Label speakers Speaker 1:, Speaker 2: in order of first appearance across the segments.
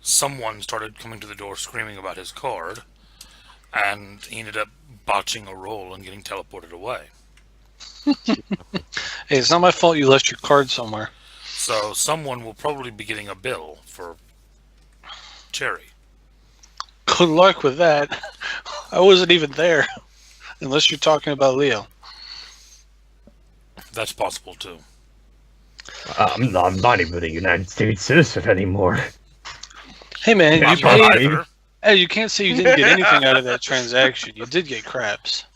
Speaker 1: someone started coming to the door screaming about his card, and he ended up botching a roll and getting teleported away.
Speaker 2: Hey, it's not my fault you left your card somewhere.
Speaker 1: So someone will probably be getting a bill for Cherry.
Speaker 2: Good luck with that. I wasn't even there. Unless you're talking about Leo.
Speaker 1: That's possible too.
Speaker 3: Uh, I'm not, I'm not even a United States citizen anymore.
Speaker 2: Hey man,
Speaker 3: Yeah,
Speaker 2: you
Speaker 1: I'm
Speaker 3: probably-
Speaker 2: paid,
Speaker 1: not either.
Speaker 2: hey, you can't say you didn't get anything out of that transaction. You did get craps.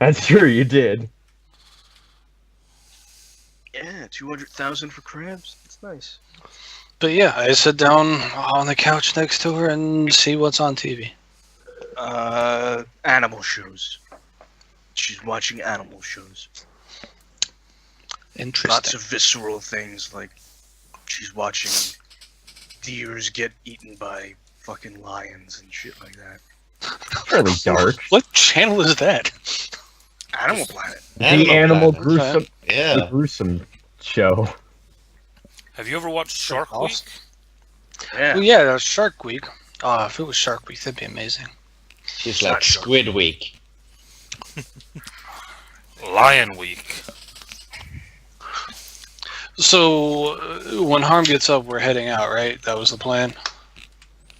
Speaker 3: That's true, you did.
Speaker 4: Yeah, two hundred thousand for crabs. That's nice.
Speaker 2: But yeah, I sit down on the couch next to her and see what's on TV.
Speaker 4: Uh, animal shows. She's watching animal shows. Lots
Speaker 2: Interesting.
Speaker 4: of visceral things, like she's watching deers get eaten by fucking lions and shit like that.
Speaker 3: Fairly dark.
Speaker 2: What channel is that?
Speaker 4: Animal Planet.
Speaker 3: the animal
Speaker 5: Planet.
Speaker 3: gruesome, the
Speaker 5: Yeah.
Speaker 3: gruesome show.
Speaker 1: Have you ever watched Shark Week?
Speaker 2: awesome.
Speaker 4: Yeah.
Speaker 2: Well, yeah, that was Shark Week. Oh, if it was Shark Week, that'd be amazing.
Speaker 5: She's like Squid Week.
Speaker 1: Lion Week.
Speaker 2: So uh, when Harm gets up, we're heading out, right? That was the plan.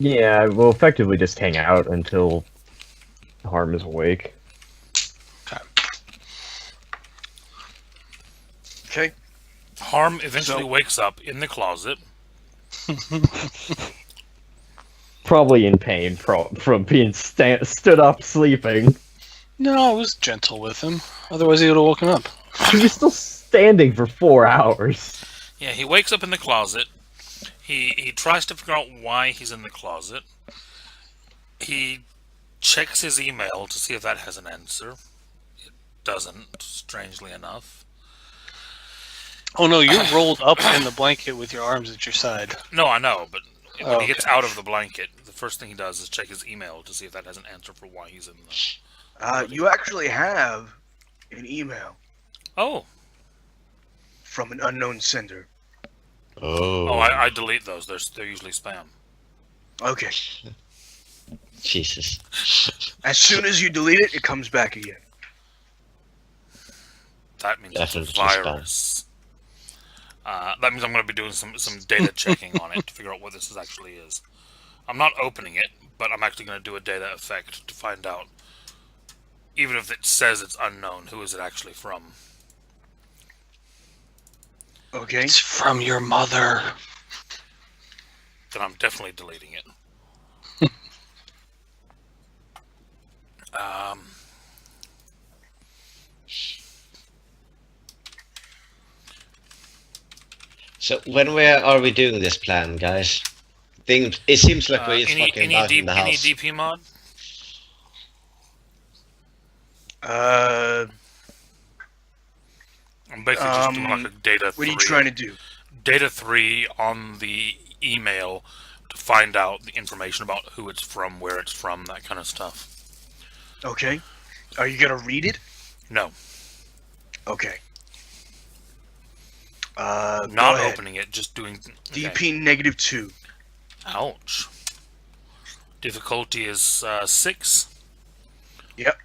Speaker 3: Yeah, we'll effectively just hang out until Harm is awake.
Speaker 4: Okay.
Speaker 1: Harm eventually
Speaker 4: So-
Speaker 1: wakes up in the closet.
Speaker 3: Probably in pain from from being sta- stood up sleeping.
Speaker 2: No, I was gentle with him. Otherwise, he would have woken up.
Speaker 3: He was still standing for four hours.
Speaker 1: Yeah, he wakes up in the closet. He he tries to figure out why he's in the closet. He checks his email to see if that has an answer. It doesn't, strangely enough.
Speaker 2: Oh no, you're rolled up in the blanket with your arms at your side.
Speaker 1: No, I know, but when
Speaker 2: Oh,
Speaker 1: he gets out of the blanket, the first thing he does is check his email to see if that has an answer for why he's in the.
Speaker 4: Uh, you actually have an email
Speaker 1: Oh,
Speaker 4: from an unknown sender.
Speaker 5: Oh,
Speaker 1: oh, I, I delete those. They're they're usually spam.
Speaker 4: Okay.
Speaker 5: Jesus.
Speaker 4: As soon as you delete it, it comes back again.
Speaker 1: That means it's a
Speaker 5: Definitely spam.
Speaker 1: virus. Uh, that means I'm going to be doing some, some data checking on it to figure out what this is actually is. I'm not opening it, but I'm actually going to do a data effect to find out, even if it says it's unknown, who is it actually from?
Speaker 4: Okay.
Speaker 2: It's from your mother.
Speaker 1: Then I'm definitely deleting it. um,
Speaker 5: So when where are we doing this plan, guys? Think it seems like
Speaker 1: uh,
Speaker 5: we're just
Speaker 1: any
Speaker 5: fucking
Speaker 1: any,
Speaker 5: about
Speaker 1: D-
Speaker 5: in the
Speaker 1: any
Speaker 5: house.
Speaker 1: DP mod?
Speaker 4: Uh,
Speaker 1: I'm basically just doing
Speaker 4: Um,
Speaker 1: like a data.
Speaker 4: what are you
Speaker 1: three.
Speaker 4: trying to do?
Speaker 1: data three on the email to find out the information about who it's from, where it's from, that kind of stuff.
Speaker 4: Okay. Are you gonna read it?
Speaker 1: No,
Speaker 4: Okay. Uh, go
Speaker 1: not
Speaker 4: ahead.
Speaker 1: opening it, just doing. okay.
Speaker 4: DP negative two.
Speaker 1: Ouch. Difficulty is uh, six.
Speaker 4: Yep.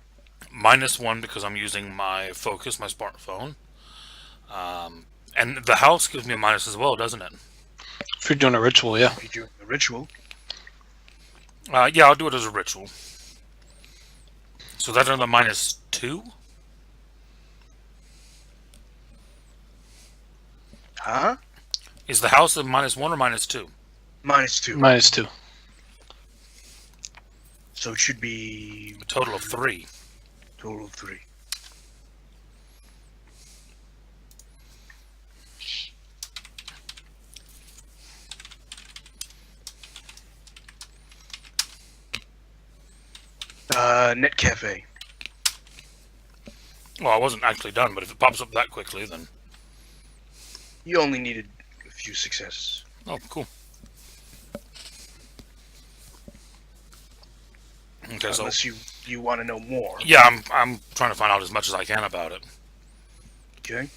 Speaker 1: Minus one because I'm using my focus, my smartphone. Um, and the house gives me a minus as well, doesn't it?
Speaker 2: If you're doing a ritual, yeah.
Speaker 4: If you're doing the ritual.
Speaker 1: Uh, yeah, I'll do it as a ritual. So that's another minus two.
Speaker 4: Huh?
Speaker 1: Is the house a minus one or minus two?
Speaker 4: Minus two.
Speaker 2: Minus two.
Speaker 4: so it should be
Speaker 1: A total of three.
Speaker 4: total of three. Uh, Net Cafe.
Speaker 1: Well, I wasn't actually done, but if it pops up that quickly, then
Speaker 4: You only needed a few successes.
Speaker 1: oh, cool. Okay, so
Speaker 4: Unless you you want to know more.
Speaker 1: yeah, I'm I'm trying to find out as much as I can about it.
Speaker 4: Okay.